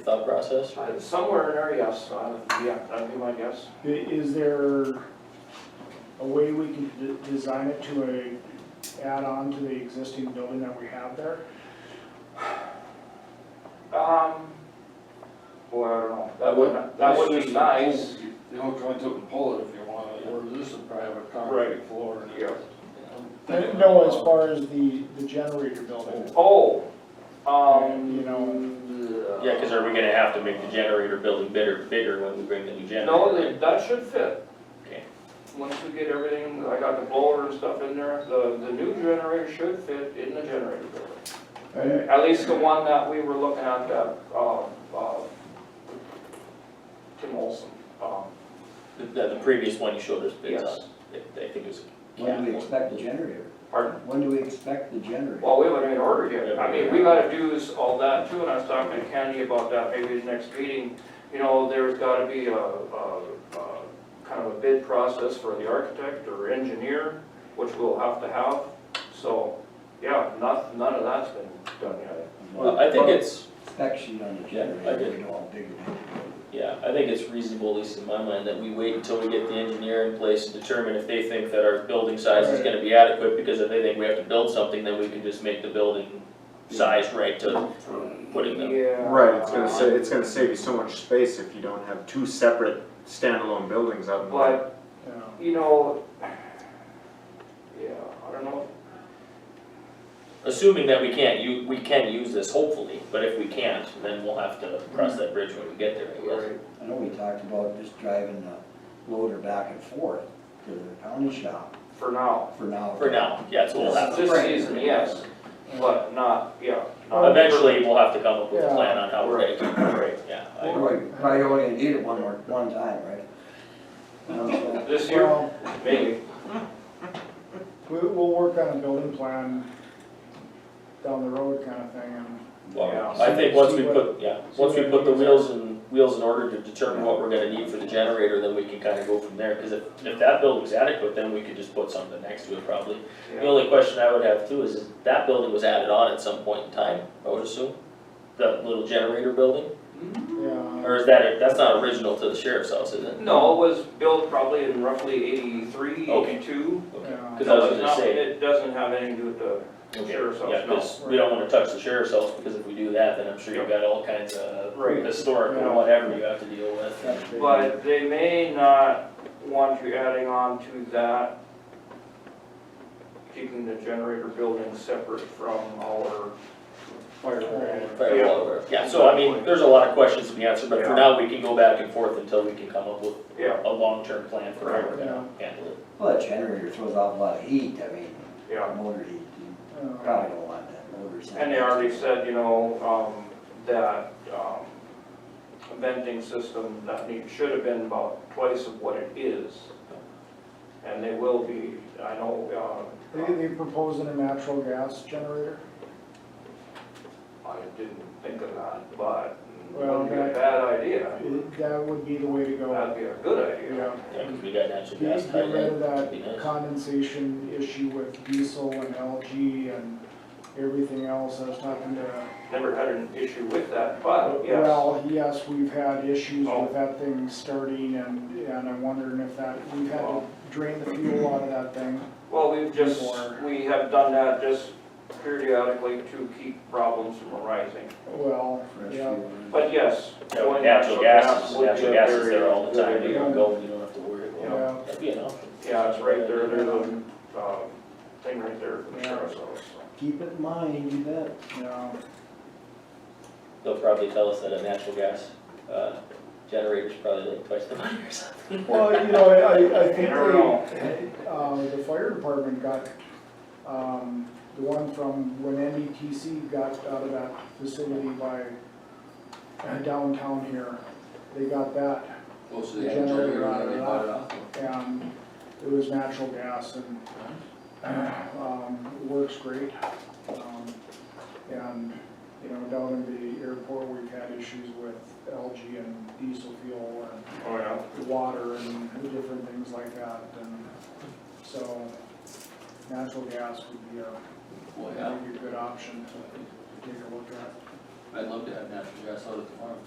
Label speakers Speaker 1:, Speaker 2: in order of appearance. Speaker 1: thought process?
Speaker 2: Uh, Somewhere in there, yes, uh, yeah, that'd be my guess.
Speaker 3: I- Is there a way we can de- design it to a, add on to the existing building that we have there?
Speaker 2: Um, boy, I don't know, that would, that would be nice.
Speaker 4: You don't go into a bullet if you want it, where this is private
Speaker 2: Right.
Speaker 4: concrete floor.
Speaker 2: Yeah.
Speaker 3: No, as far as the, the generator building.
Speaker 2: Oh, um.
Speaker 3: You know,
Speaker 1: Yeah, because are we gonna have to make the generator building bigger, bigger when we bring the new generator?
Speaker 2: No, that, that should fit.
Speaker 1: Okay.
Speaker 2: Once we get everything, I got the blower and stuff in there, the, the new generator should fit in the generator building.
Speaker 3: I-
Speaker 2: At least the one that we were looking at, that, uh, uh, Tim Olson, um,
Speaker 1: The, the previous one you showed us bids
Speaker 2: Yes.
Speaker 1: on, I- I think it was.
Speaker 5: When do we expect the generator?
Speaker 2: pardon?
Speaker 5: When do we expect the generator?
Speaker 2: Well, we haven't even ordered yet. I mean, we gotta do is all that too, and I was talking to Candy about that, maybe the next meeting. You know, there's gotta be a, a, a kind of a bid process for the architect or engineer, which we'll have to have. So, yeah, not, none of that's been done yet.
Speaker 1: Uh, I think it's,
Speaker 5: Spec sheet on the
Speaker 1: I
Speaker 5: generator,
Speaker 1: did.
Speaker 5: we know how big it is.
Speaker 1: Yeah, I think it's reasonable, at least in my mind, that we wait until we get the engineer in place and determine if they think that our building size is gonna be adequate, because if they think we have to build something, then we can just make the building size right to, for putting them.
Speaker 2: Yeah.
Speaker 6: Right, it's gonna sa- it's gonna save you so much space if you don't have two separate standalone buildings out in the.
Speaker 2: But
Speaker 3: you know.
Speaker 2: You know, yeah, I don't know,
Speaker 1: Assuming that we can't, u we can use this hopefully, but if we can't, then we'll have to cross that bridge when we get there, I guess.
Speaker 5: I know we talked about just driving the loader back and forth to the county shop
Speaker 2: for now.
Speaker 5: for now.
Speaker 1: For now, yeah, so we'll have,
Speaker 2: This season, yes, but not, yeah. not-
Speaker 1: eventually, we'll have to come up with a plan on how we're gonna keep it, yeah. I-
Speaker 5: Probably probably only gonna need it one more, one time, right? You know what I'm saying?
Speaker 2: This year,
Speaker 3: Well,
Speaker 2: maybe,
Speaker 3: we, we'll work on a building plan down the road kind of thing and.
Speaker 1: Well,
Speaker 3: Yeah.
Speaker 1: I think once we
Speaker 3: See what-
Speaker 1: put, yeah,
Speaker 3: see
Speaker 1: once
Speaker 3: what
Speaker 1: we
Speaker 3: it
Speaker 1: put the
Speaker 3: means.
Speaker 1: wheels in, wheels in order to determine what we're gonna need for the generator, then we can kinda go from there, cause if, if that building's adequate, then we could just put something next to it probably. The
Speaker 2: yeah.
Speaker 1: only question I would have too is, is that building was added on at some point in time, I would assume? That little generator building,
Speaker 3: Yeah,
Speaker 1: or is that, that's not original to the sheriff's house, is it?
Speaker 2: No, it was built probably in roughly eighty-three,
Speaker 1: Okay.
Speaker 2: eighty-two.
Speaker 1: Okay.
Speaker 3: yeah.
Speaker 1: Cause I was
Speaker 2: No, it's
Speaker 1: gonna
Speaker 2: not-
Speaker 1: say,
Speaker 2: It doesn't have anything to do with the
Speaker 1: okay,
Speaker 2: sheriff's house,
Speaker 1: yeah,
Speaker 2: no.
Speaker 1: 'cause we don't wanna touch the sheriff's house, because if we do that, then I'm sure you've got all kinds of
Speaker 2: Right.
Speaker 1: historic
Speaker 3: Yeah.
Speaker 1: and whatever you have to deal with.
Speaker 3: That's big.
Speaker 2: But they may not want you adding on to that, keeping the generator building separate from our
Speaker 1: Firewall over. Yeah, so I mean, there's a lot of questions to be answered, but for
Speaker 2: Yeah.
Speaker 1: now, we can go back and forth until we can come up with
Speaker 2: Yeah,
Speaker 1: a long-term plan for how we're
Speaker 3: Yeah.
Speaker 1: gonna handle it.
Speaker 5: Well, that generator throws off a lot of heat, I mean,
Speaker 2: yeah.
Speaker 5: motor heat, you
Speaker 3: Yeah.
Speaker 5: probably don't want that motor. sound.
Speaker 2: And they already said, you know, um, that, um, venting system that need, should have been about twice of what it is. And they will be, I know,
Speaker 3: They,
Speaker 2: uh,
Speaker 3: they proposing a natural gas generator?
Speaker 2: I didn't think of that, but
Speaker 3: Well,
Speaker 2: wouldn't be a
Speaker 3: that-
Speaker 2: bad idea.
Speaker 3: That would be the way to go.
Speaker 2: That'd be a good idea.
Speaker 3: Yeah.
Speaker 1: Yeah, because we got natural gas tied
Speaker 3: Get get
Speaker 1: in.
Speaker 3: rid of
Speaker 1: That'd be nice.
Speaker 3: that condensation issue with diesel and LG and everything else, I was talking to.
Speaker 2: Never had an issue with that, but Oh, yes,
Speaker 3: Well, yes, we've had issues
Speaker 2: Oh.
Speaker 3: with that thing starting and, and I'm wondering if that, we've had to
Speaker 2: Well.
Speaker 3: drain the fuel out of that thing.
Speaker 2: well, we've just, we have done that just periodically to keep problems from arising.
Speaker 3: Well,
Speaker 5: Fresh
Speaker 3: yeah,
Speaker 5: fuel.
Speaker 2: But yes,
Speaker 1: Yeah, with
Speaker 2: going
Speaker 1: Natural gas, is-
Speaker 2: would be a
Speaker 1: natural gas is
Speaker 2: very
Speaker 1: there all the
Speaker 2: good
Speaker 1: time, you
Speaker 2: idea.
Speaker 1: can go, you don't have to worry about
Speaker 3: yeah.
Speaker 1: it. That'd be an option.
Speaker 2: Yeah, it's right there, there's a, um, thing right there for the sheriff's office.
Speaker 5: Keep it in mind, you bet.
Speaker 3: Yeah,
Speaker 1: They'll probably tell us that a natural gas, uh, generator's probably like twice the money or something.
Speaker 3: well, you know, I, I think
Speaker 2: I don't know.
Speaker 3: they, uh, the fire department got, um, the one from when NDTC got out of that facility by uh, downtown here, they got that
Speaker 4: Most
Speaker 3: of the generator that they bought and it was natural gas and, um, it works great. Um, And, you know, down in the airport, we've had issues with LG and diesel fuel
Speaker 2: Oh, yeah.
Speaker 3: and water and different things like that, and so natural gas would be a,
Speaker 4: Well,
Speaker 3: would be a good option to to take a look at.
Speaker 4: I'd love to have natural gas out at the farm.